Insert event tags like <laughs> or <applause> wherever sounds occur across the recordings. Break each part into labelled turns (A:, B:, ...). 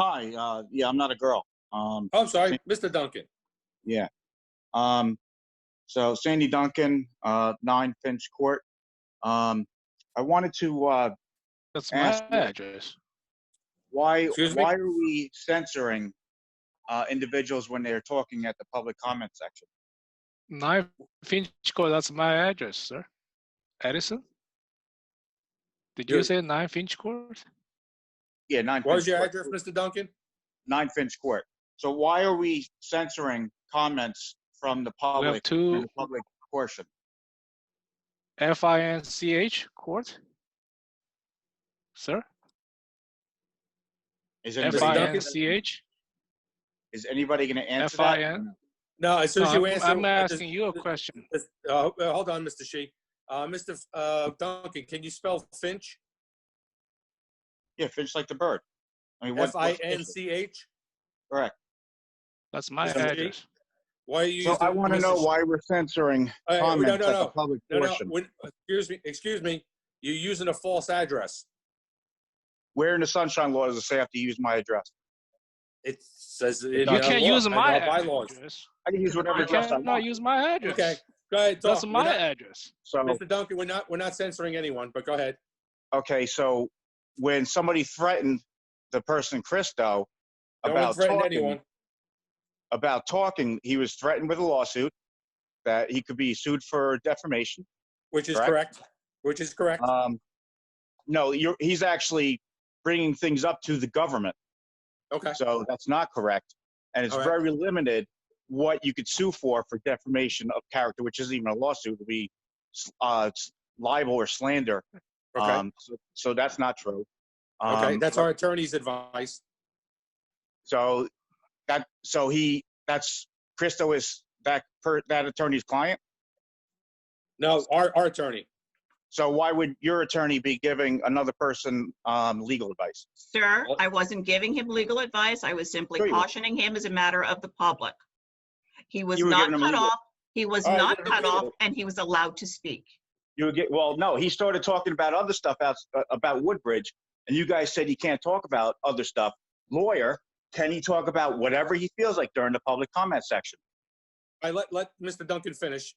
A: Hi. Uh, yeah, I'm not a girl. Um,
B: Oh, I'm sorry, Mr. Duncan.
A: yeah. Um, so Sandy Duncan, uh, Nine Finch Court. Um, I wanted to. Uh,
C: That's my
A: Ask-
C: address.
A: why
B: Excuse me?
A: why are we censoring uh, individuals when they're talking at the public comment section?
C: Nine Finch Court, that's my address, sir. Edison? Did you
B: Good.
C: say nine Finch Court?
A: Yeah, Nine.
B: What
A: Finch
B: is your
A: Court.
B: address, Mr. Duncan?
A: Nine Finch Court. So why are we censoring comments from the
C: We have
A: public? in
C: two
A: the public portion.
C: F I N C H Court? Sir?
A: Is
C: F
A: anybody,
C: I
B: Duncan?
C: N C H?
A: is anybody going to answer that?
C: FIN?
B: No, as soon as you
C: Uh, I'm
B: answer.
C: I'm
B: I just-
C: asking you a question.
B: Uh, uh, hold on, Mr. Shi. Uh, Mr. F- Uh, Duncan, can you spell Finch?
A: Yeah, Finch like the bird. I mean, what,
B: F I
A: what's the
B: N
A: issue?
B: C H?
C: That's my
B: Mr. Lee?
C: address.
B: Why are you?
A: So
B: using
A: I want to
B: Mr.
A: know
B: Shi?
A: why we're censoring
B: All right,
A: comments
B: no,
A: at
B: no,
A: the
B: no.
A: public
B: No, no,
A: portion.
B: when- excuse me, excuse me. You're using a false address.
A: Where in the sunshine law does it say I have to use my address?
B: It says. it in
C: You
B: our
C: can't
B: law-
C: use
B: in
C: my
B: our bylaws.
C: address.
A: I can use whatever
C: You
A: address I
C: cannot
A: want.
C: use my address.
B: Okay, go ahead.
C: That's
B: talk. We're
C: my
B: not-
C: address.
A: So,
B: Mr. Duncan, we're not, we're not censoring anyone, but go ahead.
A: okay, so when somebody threatened the person Christo
B: No one
A: about
B: threatened
A: talking,
B: anyone.
A: about talking, he was threatened with a lawsuit that he could be sued for defamation.
B: Which is
A: correct?
B: correct, which is correct.
A: Um, no, you're, he's actually bringing things up to the government.
B: Okay,
A: So that's not correct. And it's
B: All right.
A: very limited what you could sue for for defamation of character, which isn't even a lawsuit. It would be uh, libel or slander.
B: okay,
A: Um, so, so that's not true. Um,
B: okay. That's our attorney's advice.
A: So that so he that's Christo is that per, that attorney's client.
B: No, our, our attorney.
A: So why would your attorney be giving another person um, legal advice?
D: Sir,
B: Well-
D: I wasn't giving him legal advice. I was
A: Sure
D: simply
A: you were.
D: cautioning him as a matter of the public. He was
A: You were
D: not
A: giving him
D: cut
A: legal. Oh,
D: off. He was
B: All right,
D: not
B: then
D: cut
B: legal.
D: off and he was allowed to speak.
A: You would get well. No, he started talking about other stuff out, uh, about Woodbridge, and you guys said he can't talk about other stuff. Lawyer, can he talk about whatever he feels like during the public comment section?
B: I let, let Mr. Duncan finish.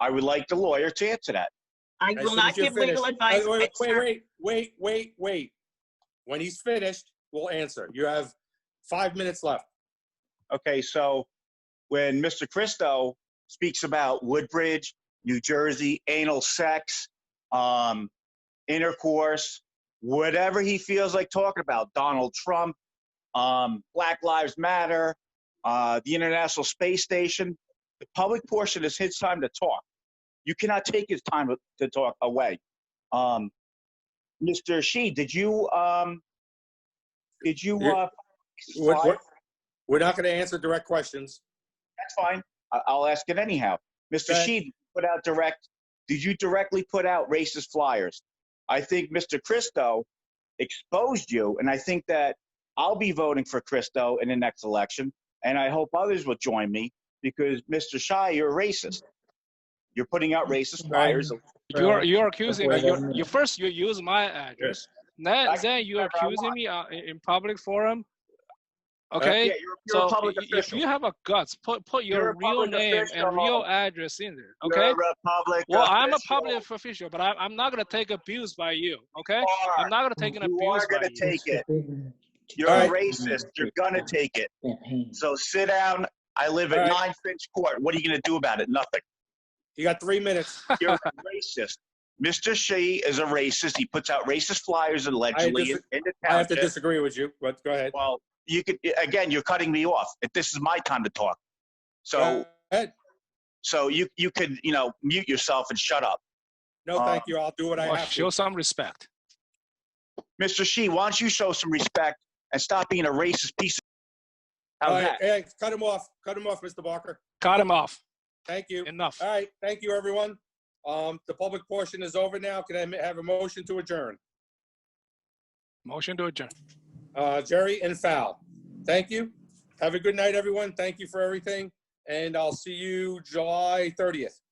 A: I would like the lawyer to answer that.
D: I
B: As
D: will
B: soon as
D: not
B: you're
D: give legal
B: finished-
D: advice.
B: Wait, wait,
D: but,
B: wait,
D: sir,
B: wait, wait, wait, wait. When he's finished, we'll answer. You have five minutes left.
A: Okay, so when Mr. Christo speaks about Woodbridge, New Jersey, anal sex, um, intercourse, whatever he feels like talking about, Donald Trump, um, Black Lives Matter, uh, the International Space Station, the public portion is his time to talk. You cannot take his time to talk away. Um, Mr. Shi, did you um, did you uh,
B: We're, we're- we're not going to answer direct questions.
A: that's fine. I- I'll ask it anyhow. Mr.
B: Okay.
A: Sheed put out direct. Did you directly put out racist flyers? I think Mr. Christo exposed you, and I think that I'll be voting for Christo in the next election, and I hope others will join me because Mr. Shy, you're a racist. You're putting out racist flyers.
C: You are you are accusing me.
B: wait
C: You,
B: one minute.
C: you first you use my address. Then
A: I can
C: then you are
A: whatever I
C: accusing
A: want.
C: me uh, in in public forum.
A: Uh, Yeah,
C: Okay.
A: you're, you're a
C: so
A: public
C: i- i- if
A: official.
C: you have a guts, put put
A: You're
C: your
A: a
C: real
A: public
C: name
A: official.
C: and real address in there. Okay.
A: You're a public
C: well, I'm a
A: official.
C: public official, but I, I'm not gonna take abuse by you. Okay.
A: You
C: I'm
A: are.
C: not gonna take an
A: You
C: abuse
A: are
C: by
A: gonna
C: you.
A: take it. You're a
B: All right.
A: racist. You're gonna take it.
E: So
A: So sit down. I live
B: All
A: at
B: right.
A: Nine Finch Court. What are you going to do about it? Nothing.
B: You got three minutes.
A: You're
B: <laughs>
A: a racist. Mr. Shea is a racist. He puts out racist flyers
B: I
A: allegedly
B: dis-
A: in the
B: I have to
A: township.
B: disagree with you, but go ahead.
A: well, you could again. You're cutting me off. This is my time to talk. So,
B: Go ahead.
A: so you you could you know mute yourself and shut up.
B: No,
A: uh,
B: thank you. I'll do what I
C: Well,
B: have
C: Oh, show
B: to.
C: some respect.
A: Mr. Shea, why don't you show some respect and stop being a racist piece? Of-
B: All
A: How's
B: right,
A: that?
B: hey, cut him off. Cut him off, Mr. Barker.
C: Cut him off.
B: Thank you.
C: Enough.
A: Uh,
B: All right, thank you, everyone. Um, the public portion is over now. Can I ma- have a motion to adjourn?
C: Motion to adjourn.
B: Uh, Jerry and Fal, thank you. Have a good night, everyone. Thank you for everything, and I'll see you July 30th.